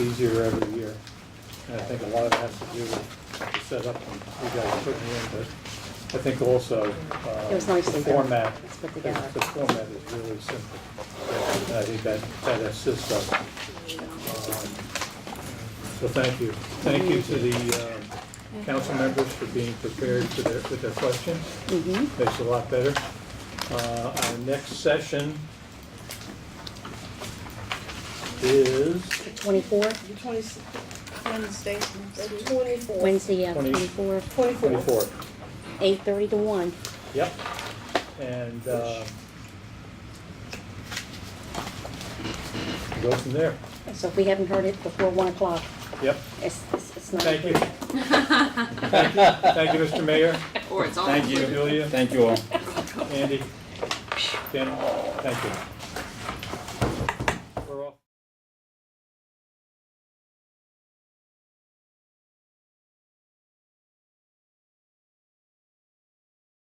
easier every year. And I think a lot of it has to do with the setup and you guys are putting in, but I think also, uh, It was nicely the done. format, It's the put together. the format is really simple. And I think that, that assists us. Um, So thank you. Thank you to the, um, council members for being prepared for their, with their questions. Mhm. Makes it a lot better. Uh, Our next session is Twenty-four, The twenty, Wednesday, twenty-four. Wednesday, yeah, Twenty- twenty-four, Twenty-four. twenty-four. eight-thirty to one. Yep. And uh, go from there. So if we haven't heard it before one o'clock, Yep. it's, it's it's not. Thank you. Thank you, Thank you, Mr. Mayor. Or it's all Thank you, Julia, Thank you all. Andy, Ken, thank you.